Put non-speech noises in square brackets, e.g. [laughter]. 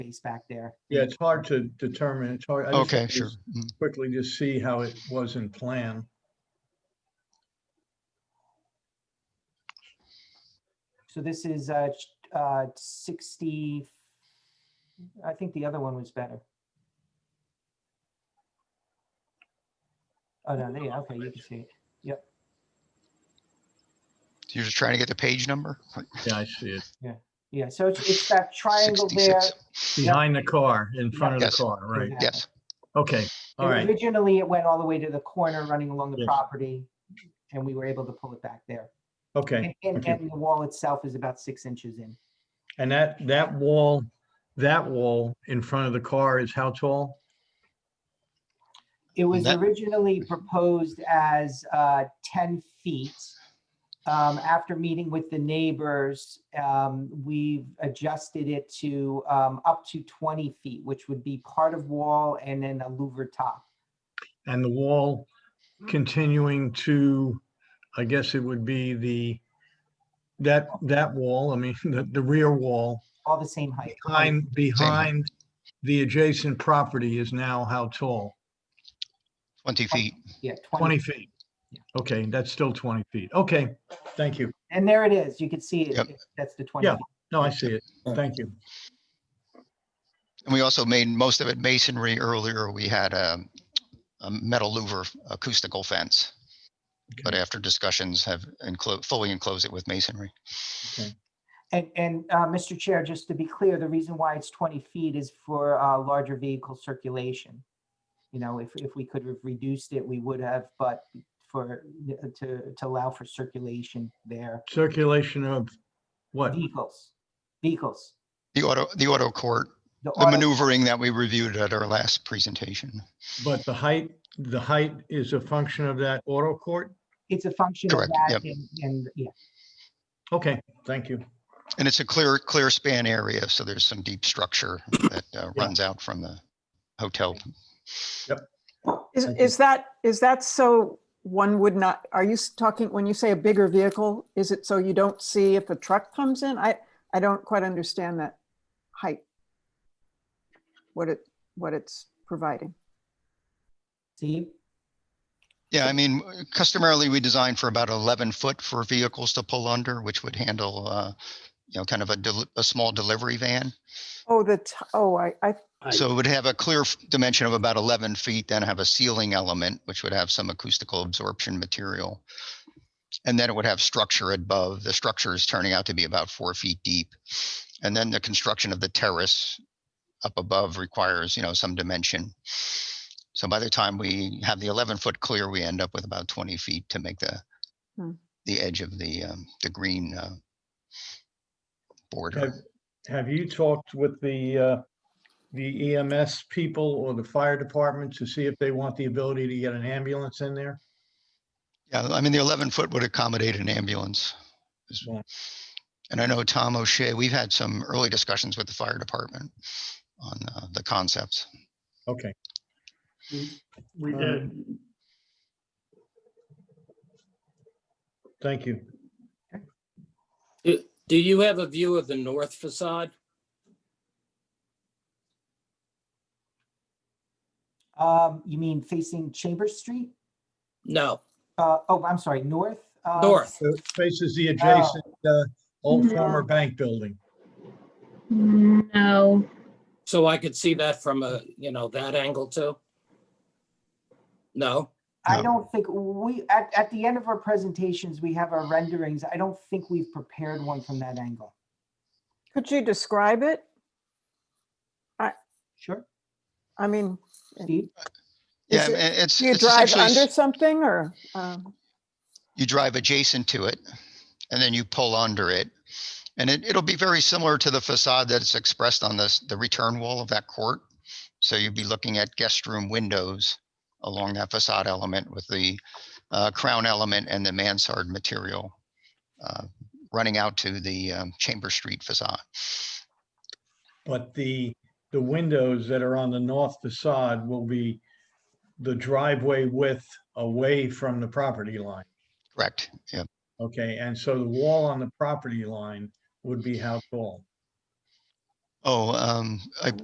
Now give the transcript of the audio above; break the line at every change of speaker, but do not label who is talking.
space back there.
Yeah, it's hard to determine. It's hard. I just
Okay,
wanted to
sure.
s-
Mm.
Quickly just see how it was in plan.
So this is uh, ch- uh, 60, I think the other one was better. Oh, no, there, you- okay, you can see it.
You're just trying to get the page number? Like,
Yeah, I see it.
Yeah, so it's, it's that triangle there.
66.
Behind the car, in front of the
Yes.
car, right?
Exactly.
Yes,
Okay, all
And
right.
Originally, it went all the way to the corner running along the
Yes.
property, and we were able to pull it back there. And,
Okay,
and
okay.
and the wall itself is about six inches in.
and that, that wall, that wall in front of the car is how tall?
It was
That-
originally proposed as uh, 10 feet. Um, After meeting with the neighbors, um, we've adjusted it to um, up to 20 feet, which would be part of wall and then a louver top.
And the wall continuing to, I guess it would be the, that, that wall, I mean, [laughs] the, the rear wall,
All the same height.
behind, behind the adjacent property is now how tall?
20 feet.
Yeah, 20.
20 feet.
Yeah.
Okay, that's still 20 feet. Okay, thank you.
And there it is. You can see
Yep.
it. That's the 20.
Yeah.
feet.
No, I see it. Thank you.
And we also made most of it masonry earlier. We had um, a metal louver acoustical fence. But after discussions have enclosed, fully enclosed it with masonry.
And, and uh, Mr. Chair, just to be clear, the reason why it's 20 feet is for uh, larger vehicle circulation. You know, if, if we could have reduced it, we would have, but for, to, to allow for circulation there.
Circulation of what?
Vehicles, vehicles.
The auto, the auto court, the
auto-
maneuvering that we reviewed at our last presentation.
But the height, the height is a function of that auto court?
It's a function of
Correct,
that and, and, yeah,
Okay, thank you.
And it's a clear, clear span area, so there's some deep structure that uh,
Yeah.
runs out from the hotel.
Is,
Thank you.
is that, is that so one would not, are you s- talking, when you say a bigger vehicle, is it so you don't see if a truck comes in? I, I don't quite understand that height. What it, what it's providing.
see,
Yeah, I mean, customarily, we design for about 11 foot for vehicles to pull under, which would handle, uh, you know, kind of a, deli- a small delivery van.
Oh, the, t- oh, I, I,
So it would have a clear f- dimension of about 11 feet, then have a ceiling element, which would have some acoustical absorption material. And then it would have structure above. The structure is turning out to be about four feet deep. And then the construction of the terrace up above requires, you know, some dimension. So by the time we have the 11 foot clear, we end up with about 20 feet to make the,
Hmm.
the edge of the, um, the green uh, border.
Have, have you talked with the, uh, the EMS people or the fire department to see if they want the ability to get an ambulance in there?
Yeah, I mean, the eleven foot would accommodate an ambulance. Is-
Yeah.
And I know Tom O'Shea, we've had some early discussions with the fire department on uh, the concepts.
Okay,
We
Um,
did.
thank you.
Do, do you have a view of the north facade?
um, you mean facing Chambers Street?
No,
Uh, oh, I'm sorry, north? uh,
north.
So it Faces the adjacent, uh, old former bank building.
No,
So I could see that from a, you know, that angle too? No?
I
Um,
don't think we, at, at the end of our presentations, we have our renderings. I don't think we've prepared one from that angle.
could you describe it?
Sure,
I mean,
Steve?
Yeah,
Is it-
and it's.
do you
it's
drive
essentially s-
under something or? um,
You drive adjacent to it and then you pull under it. And it, it'll be very similar to the facade that's expressed on this, the return wall of that court. So you'd be looking at guest room windows along that facade element with the uh, crown element and the mansard material uh, running out to the um, Chamber Street facade.
But the, the windows that are on the north facade will be the driveway width away from the property line.
Correct. Yep.
Okay, and so the wall on the property line would be how tall?
Oh, um, I